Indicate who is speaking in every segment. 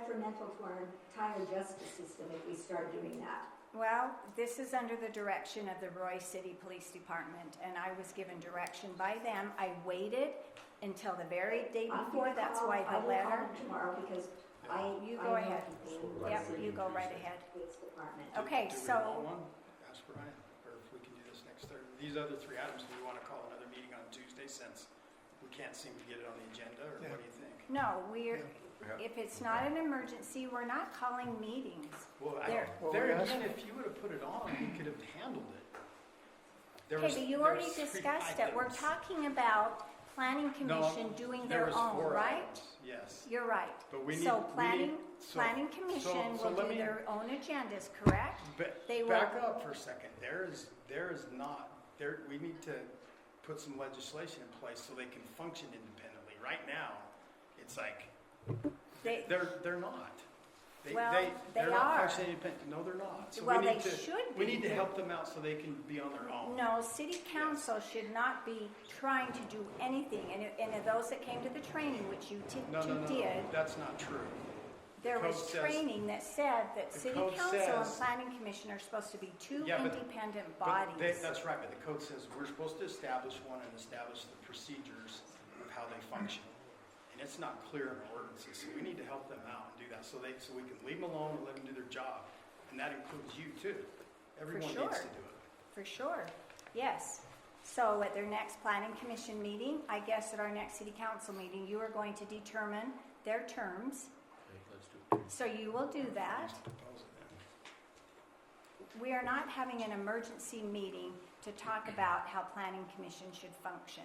Speaker 1: detrimental to our entire justice system if we start doing that.
Speaker 2: Well, this is under the direction of the Roy City Police Department, and I was given direction by them. I waited until the very day
Speaker 1: I'm
Speaker 2: before,
Speaker 1: gonna
Speaker 2: that's
Speaker 1: call-
Speaker 2: why
Speaker 1: I
Speaker 2: the
Speaker 1: will call
Speaker 2: letter.
Speaker 1: them tomorrow because I.
Speaker 2: You
Speaker 1: I
Speaker 2: go
Speaker 1: know
Speaker 2: ahead.
Speaker 1: people in the
Speaker 2: Yep,
Speaker 1: City
Speaker 2: you go right ahead.
Speaker 1: Police Department.
Speaker 2: Okay.
Speaker 3: Do we
Speaker 2: so-
Speaker 3: want one? Ask Brian, or if we can do this next Thursday. These other three items, do we want to call another meeting on Tuesday since we can't seem to get it on the agenda, or what do you think?
Speaker 2: No, we're, if it's not an emergency, we're not calling meetings.
Speaker 3: Well, I,
Speaker 2: There.
Speaker 4: Well, we
Speaker 3: there
Speaker 4: asked-
Speaker 3: again, if you would have put it on, we could have handled it. There
Speaker 2: Okay,
Speaker 3: was-
Speaker 2: but you
Speaker 3: there
Speaker 2: already
Speaker 3: was three
Speaker 2: discussed it. We're
Speaker 3: items.
Speaker 2: talking about planning
Speaker 3: No,
Speaker 2: commission doing their
Speaker 3: there was
Speaker 2: own,
Speaker 3: four
Speaker 2: right?
Speaker 3: items, Yes,
Speaker 2: You're right.
Speaker 3: But we need- we
Speaker 2: So
Speaker 3: need-
Speaker 2: planning,
Speaker 3: so-
Speaker 2: planning
Speaker 3: so-
Speaker 2: commission
Speaker 3: so
Speaker 2: will do
Speaker 3: let me-
Speaker 2: their own agendas, correct?
Speaker 3: but
Speaker 2: They
Speaker 3: back
Speaker 2: will-
Speaker 3: up for a second. There is, there is not, there, we need to put some legislation in place so they can function independently. Right now, it's like,
Speaker 2: They-
Speaker 3: They're, they're not. They,
Speaker 2: Well,
Speaker 3: they,
Speaker 2: they
Speaker 3: they're not
Speaker 2: are.
Speaker 3: functioning independent. No, they're not. So
Speaker 2: Well,
Speaker 3: we need
Speaker 2: they
Speaker 3: to,
Speaker 2: should
Speaker 3: We
Speaker 2: be.
Speaker 3: need to help them out so they can be on their own.
Speaker 2: No, city council should not be trying to do anything, and, it- and of those that came to the training, which you ti-
Speaker 3: No, no, no,
Speaker 2: two did,
Speaker 3: that's not true.
Speaker 2: there
Speaker 3: code
Speaker 2: was
Speaker 3: says-
Speaker 2: training that said that
Speaker 3: the
Speaker 2: city
Speaker 3: code
Speaker 2: council and
Speaker 3: says-
Speaker 2: planning commission are supposed to be two
Speaker 3: Yeah, but-
Speaker 2: independent
Speaker 3: But they,
Speaker 2: bodies.
Speaker 3: that's right, but the code says we're supposed to establish one and establish the procedures of how they function. And it's not clear in our ordinances, so we need to help them out and do that, so they, so we can leave them alone and let them do their job. And that includes you too. Everyone
Speaker 2: sure.
Speaker 3: needs to do it.
Speaker 2: For sure, yes. So at their next planning commission meeting, I guess at our next city council meeting, you are going to determine their terms. So you will do that.
Speaker 3: Propose it then.
Speaker 2: We are not having an emergency meeting to talk about how planning commission should function.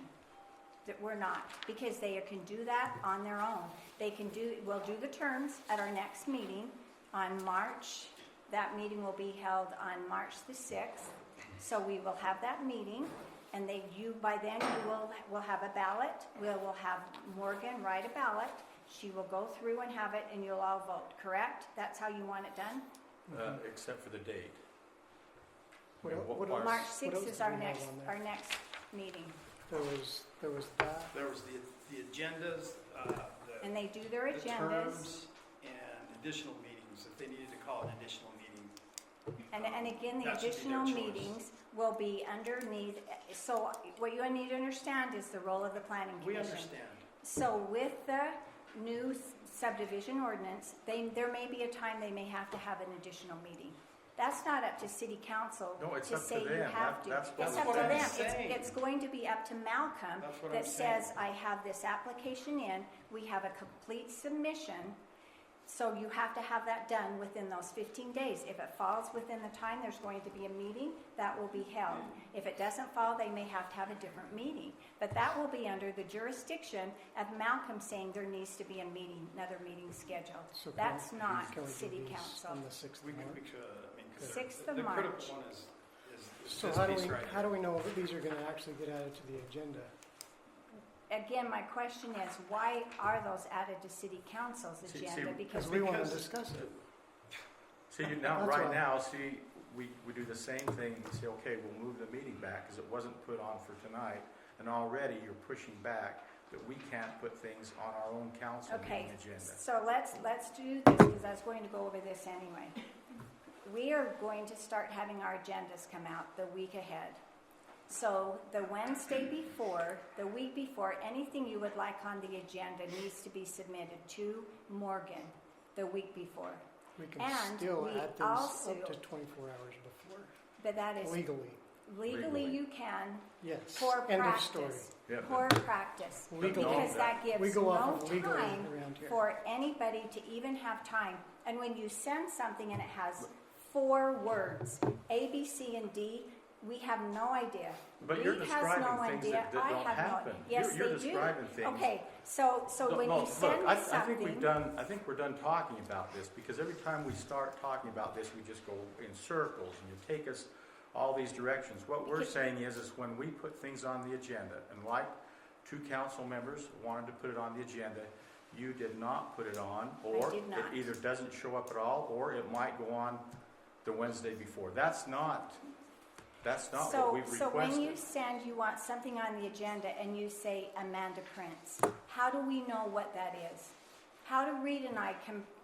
Speaker 2: That we're not, because they can do that on their own. They can do, we'll do the terms at our next meeting on March. That meeting will be held on March the sixth. So we will have that meeting, and they, you, by then, you will, will have a ballot. We will have Morgan write a ballot. She will go through and have it, and you'll all vote, correct? That's how you want it done?
Speaker 5: Uh, except for the date.
Speaker 4: Well,
Speaker 5: And what
Speaker 4: what
Speaker 5: parts?
Speaker 4: else-
Speaker 2: March
Speaker 4: what else
Speaker 2: sixth is
Speaker 4: do
Speaker 2: our
Speaker 4: we have
Speaker 2: next,
Speaker 4: on there?
Speaker 2: our next meeting,
Speaker 4: There was, there was that.
Speaker 3: There was the, the agendas, uh, the.
Speaker 2: and they do their
Speaker 3: the
Speaker 2: agendas.
Speaker 3: terms and additional meetings, if they needed to call an additional meeting. Uh,
Speaker 2: And, and again, the
Speaker 3: That should be their
Speaker 2: additional
Speaker 3: choice.
Speaker 2: meetings will be underneath, so what you need to understand is the role of the planning
Speaker 3: We
Speaker 2: commission.
Speaker 3: understand.
Speaker 2: So with the new s- subdivision ordinance, they, there may be a time they may have to have an additional meeting. That's not up to city council
Speaker 5: No, it's
Speaker 2: to
Speaker 5: up to
Speaker 2: say you
Speaker 5: them.
Speaker 2: have
Speaker 5: That-
Speaker 2: to.
Speaker 5: that's what
Speaker 2: It's
Speaker 5: I'm
Speaker 2: up to them.
Speaker 3: saying.
Speaker 2: It's, it's going to be up to Malcolm
Speaker 3: That's what I'm
Speaker 2: that says,
Speaker 3: saying.
Speaker 2: I have this application in, we have a complete submission. So you have to have that done within those fifteen days. If it falls within the time, there's going to be a meeting, that will be held. If it doesn't fall, they may have to have a different meeting. But that will be under the jurisdiction of Malcolm saying there needs to be a meeting, another meeting scheduled.
Speaker 4: So can we-
Speaker 2: That's not
Speaker 4: can we do
Speaker 2: city
Speaker 4: these On
Speaker 2: council.
Speaker 4: the sixth
Speaker 3: We
Speaker 4: of
Speaker 3: could, we
Speaker 4: March.
Speaker 3: could, I mean, 'cause
Speaker 2: Sixth
Speaker 3: the-
Speaker 2: of
Speaker 3: the critical
Speaker 2: March.
Speaker 3: one is, is- is
Speaker 4: So
Speaker 3: this
Speaker 4: how do
Speaker 3: piece
Speaker 4: we,
Speaker 3: right
Speaker 4: how do
Speaker 3: here.
Speaker 4: we know that these are gonna actually get added to the agenda?
Speaker 2: Again, my question is, why are those added to city council's
Speaker 5: See- see,
Speaker 2: agenda?
Speaker 4: Because
Speaker 2: Because
Speaker 4: we wanna
Speaker 3: because-
Speaker 4: discuss it.
Speaker 5: See, you- now,
Speaker 4: That's
Speaker 5: right
Speaker 4: all.
Speaker 5: now, see, we, we do the same thing, you say, okay, we'll move the meeting back, because it wasn't put on for tonight, and already you're pushing back that we can't put things on our own council
Speaker 2: Okay,
Speaker 5: meeting agenda.
Speaker 2: so let's, let's do this, because I was going to go over this anyway. We are going to start having our agendas come out the week ahead. So the Wednesday before, the week before, anything you would like on the agenda needs to be submitted to Morgan the week before.
Speaker 4: We can
Speaker 2: And
Speaker 4: still
Speaker 2: we
Speaker 4: add things
Speaker 2: also-
Speaker 4: up to twenty-four hours before,
Speaker 2: But that is
Speaker 4: legally,
Speaker 2: legally
Speaker 5: Legally.
Speaker 2: you can,
Speaker 4: yes.
Speaker 2: for
Speaker 4: End of story.
Speaker 2: practice.
Speaker 5: Yeah, but-
Speaker 2: For practice.
Speaker 4: Legally.
Speaker 2: Because that gives
Speaker 4: We go
Speaker 2: no
Speaker 4: off of legally
Speaker 2: time
Speaker 4: around here.
Speaker 2: for anybody to even have time. And when you send something and it has four words, A, B, C, and D, we have no idea.
Speaker 5: But you're
Speaker 2: Reed has
Speaker 5: describing
Speaker 2: no
Speaker 5: things
Speaker 2: idea.
Speaker 5: that- that
Speaker 2: I
Speaker 5: don't
Speaker 2: have no-
Speaker 5: happen.
Speaker 2: Yes,
Speaker 5: You're- you're
Speaker 2: they do.
Speaker 5: describing things-
Speaker 2: Okay, so, so
Speaker 5: No,
Speaker 2: when
Speaker 5: no,
Speaker 2: you send
Speaker 5: look, I-
Speaker 2: me
Speaker 5: I think we've
Speaker 2: something,
Speaker 5: done, I think we're done talking about this, because every time we start talking about this, we just go in circles, and you take us all these directions. What we're
Speaker 2: Because-
Speaker 5: saying is, is when we put things on the agenda, and like two council members wanted to put it on the agenda, you did not put it on, or it
Speaker 2: did not.
Speaker 5: either doesn't show up at all, or it might go on the Wednesday before. That's not, that's not what
Speaker 2: so,
Speaker 5: we've
Speaker 2: so when you
Speaker 5: requested.
Speaker 2: send, you want something on the agenda and you say Amanda Prince, how do we know what that is? How do Reed and I can